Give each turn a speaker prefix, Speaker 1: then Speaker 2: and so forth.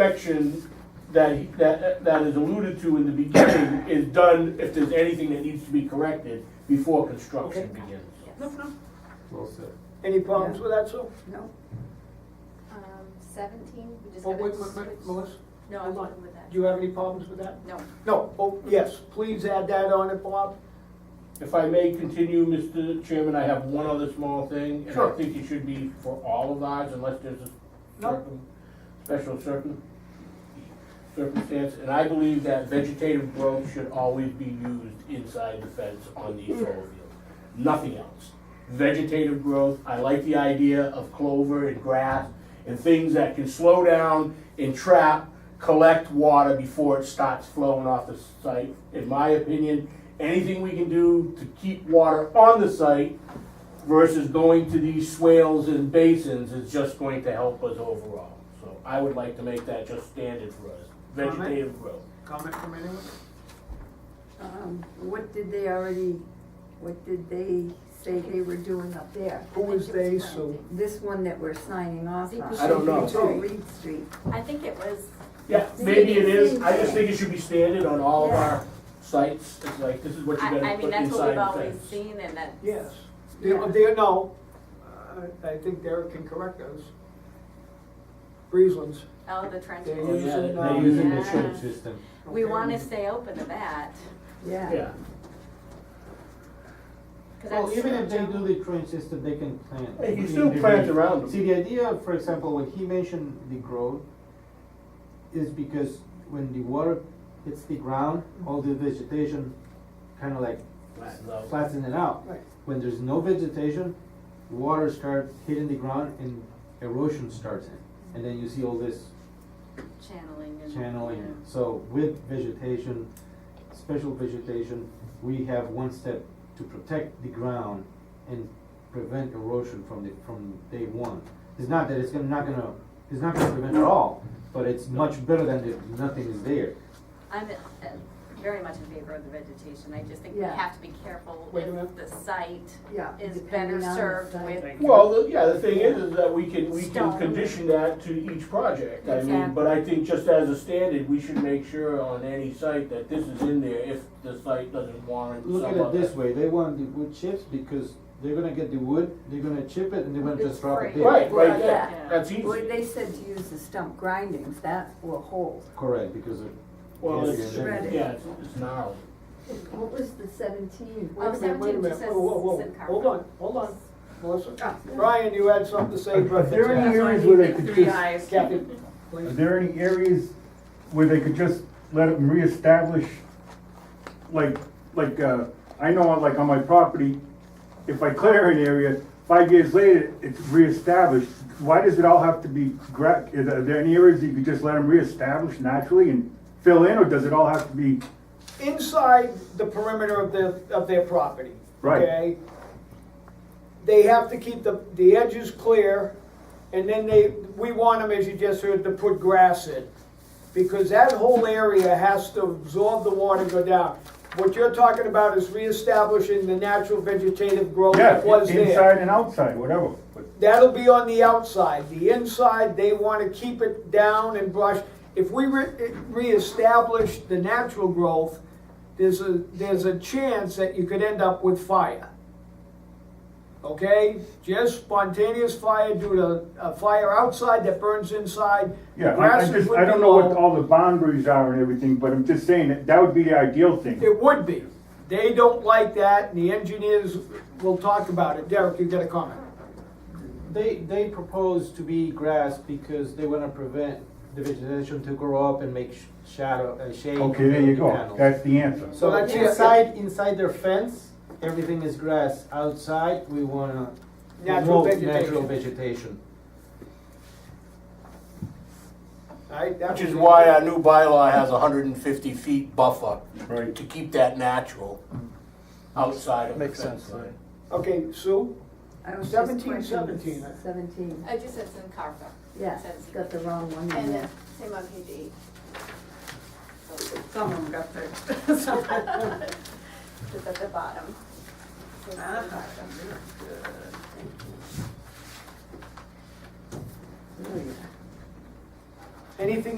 Speaker 1: inspection that, that, that is alluded to in the beginning is done if there's anything that needs to be corrected before construction
Speaker 2: Okay.
Speaker 1: begins.
Speaker 2: Yes.
Speaker 3: Well said.
Speaker 4: Any problems with that, Sue?
Speaker 2: No?
Speaker 5: Um, seventeen, we just
Speaker 4: Oh,
Speaker 5: gotta
Speaker 4: wait, wait, wait,
Speaker 5: switch-
Speaker 4: Melissa,
Speaker 5: No, I'm
Speaker 4: hold
Speaker 5: done
Speaker 4: on.
Speaker 5: with that.
Speaker 4: Do you have any problems with that?
Speaker 5: No,
Speaker 4: No, oh, yes, please add that on it, Bob.
Speaker 1: If I may continue, Mr. Chairman, I have one other small thing, and I
Speaker 4: Sure.
Speaker 1: think it should be for all of ours unless there's a
Speaker 4: No.
Speaker 1: circum, special circum, circumstance. And I believe that vegetative growth should always be used inside the fence on the solar field, nothing else. Vegetative growth, I like the idea of clover and grass and things that can slow down and trap, collect water before it starts flowing off the site. In my opinion, anything we can do to keep water on the site versus going to these swales and basins is just going to help us overall. So I would like to make that just standard for us, vegetative growth.
Speaker 4: Comment from anyone?
Speaker 2: Um, what did they already, what did they say they were doing up there?
Speaker 4: Who is they, Sue?
Speaker 2: This one that we're signing off on?
Speaker 5: I
Speaker 1: don't know.
Speaker 2: Oh, Reed Street.
Speaker 5: I think it was,
Speaker 1: Yeah, maybe it is, I just think it should be standard on all of our sites, it's like, this is what
Speaker 5: I,
Speaker 1: you
Speaker 5: I
Speaker 1: gotta
Speaker 5: mean,
Speaker 1: put
Speaker 5: that's what we've
Speaker 1: inside the
Speaker 5: always
Speaker 1: fence.
Speaker 5: seen and that.
Speaker 4: Yes. They're, they're, no, Uh, I think Derek can correct us. Breezelands.
Speaker 5: Oh, the trench.
Speaker 4: They
Speaker 1: Oh,
Speaker 4: use
Speaker 1: yeah,
Speaker 4: it,
Speaker 1: they
Speaker 4: um,
Speaker 3: They're using the
Speaker 5: Yeah.
Speaker 3: trench system.
Speaker 5: We
Speaker 4: okay.
Speaker 5: wanna stay open to that,
Speaker 2: Yeah.
Speaker 1: Yeah,
Speaker 5: cause
Speaker 3: Well,
Speaker 5: that's.
Speaker 3: even if they do the trench system, they can plant.
Speaker 1: Hey, you
Speaker 3: in
Speaker 1: still
Speaker 3: the
Speaker 1: plant
Speaker 3: re-
Speaker 1: around 'em.
Speaker 3: See, the idea, for example, when he mentioned the growth, is because when the water hits the ground, all the vegetation kind of like
Speaker 1: Flatten out.
Speaker 3: flattens it out.
Speaker 4: Right.
Speaker 3: When there's no vegetation, water starts hitting the ground and erosion starts in. And then you see all this
Speaker 5: Channeling and.
Speaker 3: channeling. So with vegetation, special vegetation, we have one step to protect the ground and prevent erosion from the, from day one. It's not that it's gonna, not gonna, it's not gonna prevent at all, but it's much better than if nothing is there.
Speaker 5: I'm uh, very much in favor of the vegetation, I just think we
Speaker 2: Yeah.
Speaker 5: have to be careful
Speaker 4: Wait a
Speaker 5: if
Speaker 4: minute.
Speaker 5: the site
Speaker 2: Yeah,
Speaker 5: is
Speaker 2: depending
Speaker 5: better
Speaker 2: on the
Speaker 5: served
Speaker 2: site.
Speaker 5: with.
Speaker 1: Well, the- yeah, the thing is, is that we can, we can
Speaker 5: Stone.
Speaker 1: condition that to each project, I mean,
Speaker 5: Exactly.
Speaker 1: but I think just as a standard, we should make sure on any site that this is in there if the site doesn't warrant some
Speaker 3: Look at it
Speaker 1: other-
Speaker 3: this way, they want the wood chips because they're gonna get the wood, they're gonna chip it and they're gonna
Speaker 5: It's
Speaker 3: just drop
Speaker 5: free.
Speaker 3: it there.
Speaker 1: Right, right,
Speaker 2: Well,
Speaker 1: there.
Speaker 5: yeah.
Speaker 1: that's
Speaker 2: Well,
Speaker 1: easy,
Speaker 2: they said to use the stump grindings, that will hold.
Speaker 3: Correct, because of.
Speaker 1: well,
Speaker 3: Yeah,
Speaker 1: it's,
Speaker 3: yeah, yeah.
Speaker 1: yeah, it's, it's gnarly.
Speaker 2: What was the seventeen?
Speaker 4: Wait a minute, wait a minute.
Speaker 5: says
Speaker 4: Whoa, whoa, whoa.
Speaker 5: Sid Carver.
Speaker 4: Hold on, hold on, Melissa.
Speaker 5: Ah.
Speaker 4: Brian, you had something to say, but.
Speaker 6: There are
Speaker 4: that's-
Speaker 6: areas where they could
Speaker 2: Three
Speaker 6: just,
Speaker 2: eyes.
Speaker 4: Captain,
Speaker 6: are
Speaker 4: please.
Speaker 6: there any areas where they could just let them reestablish? Like, like, uh, I know, like on my property, if I clear an area, five years later, it's reestablished. Why does it all have to be gra, is- are there any areas you could just let them reestablish naturally and fill in, or does it all have to be?
Speaker 4: Inside the perimeter of their, of their property.
Speaker 6: Right.
Speaker 4: okay? They have to keep the, the edges clear, and then they, we want them, as you just heard, to put grass in. Because that whole area has to absorb the water and go down. What you're talking about is reestablishing the natural vegetative growth
Speaker 6: Yeah,
Speaker 4: that was there.
Speaker 6: inside and outside, whatever, but.
Speaker 4: That'll be on the outside. The inside, they want to keep it down and brush. If we re- reestablish the natural growth, there's a, there's a chance that you could end up with fire. Okay? Just spontaneous fire due to a fire outside that burns inside.
Speaker 6: Yeah, I- I
Speaker 4: Grasses
Speaker 6: just,
Speaker 4: would
Speaker 6: I
Speaker 4: be
Speaker 6: don't know
Speaker 4: low.
Speaker 6: what all the boundaries are and everything, but I'm just saying that that would be the ideal thing.
Speaker 4: It would be. They don't like that, and the engineers will talk about it. Derek, you got a comment?
Speaker 3: They, they propose to be grass because they wanna prevent the vegetation to grow up and make sh- shadow, uh, shade.
Speaker 6: Okay, there
Speaker 3: on
Speaker 6: you
Speaker 3: the
Speaker 6: go,
Speaker 3: panels.
Speaker 6: that's the answer.
Speaker 3: So
Speaker 4: Well, that's it.
Speaker 3: inside, inside their fence, everything is grass, outside, we wanna
Speaker 4: Natural
Speaker 3: promote natural
Speaker 4: vegetation.
Speaker 3: vegetation.
Speaker 4: All right, that
Speaker 1: Which is
Speaker 4: was-
Speaker 1: why our new bylaw has hundred and fifty feet buffer
Speaker 6: Right.
Speaker 1: to keep that natural
Speaker 3: Mm.
Speaker 1: outside of the fence line.
Speaker 4: Okay, Sue?
Speaker 2: I was just
Speaker 4: 17,
Speaker 2: questioning
Speaker 4: 17, I-
Speaker 2: Seventeen,
Speaker 5: I just said it's in Carver.
Speaker 2: yeah,
Speaker 5: Says-
Speaker 2: got the wrong one in
Speaker 5: And
Speaker 2: there.
Speaker 5: then, same on page eight. Oh,
Speaker 2: Some of them got fixed.
Speaker 5: It's at the bottom. It's at the bottom.
Speaker 2: There we go.
Speaker 4: Anything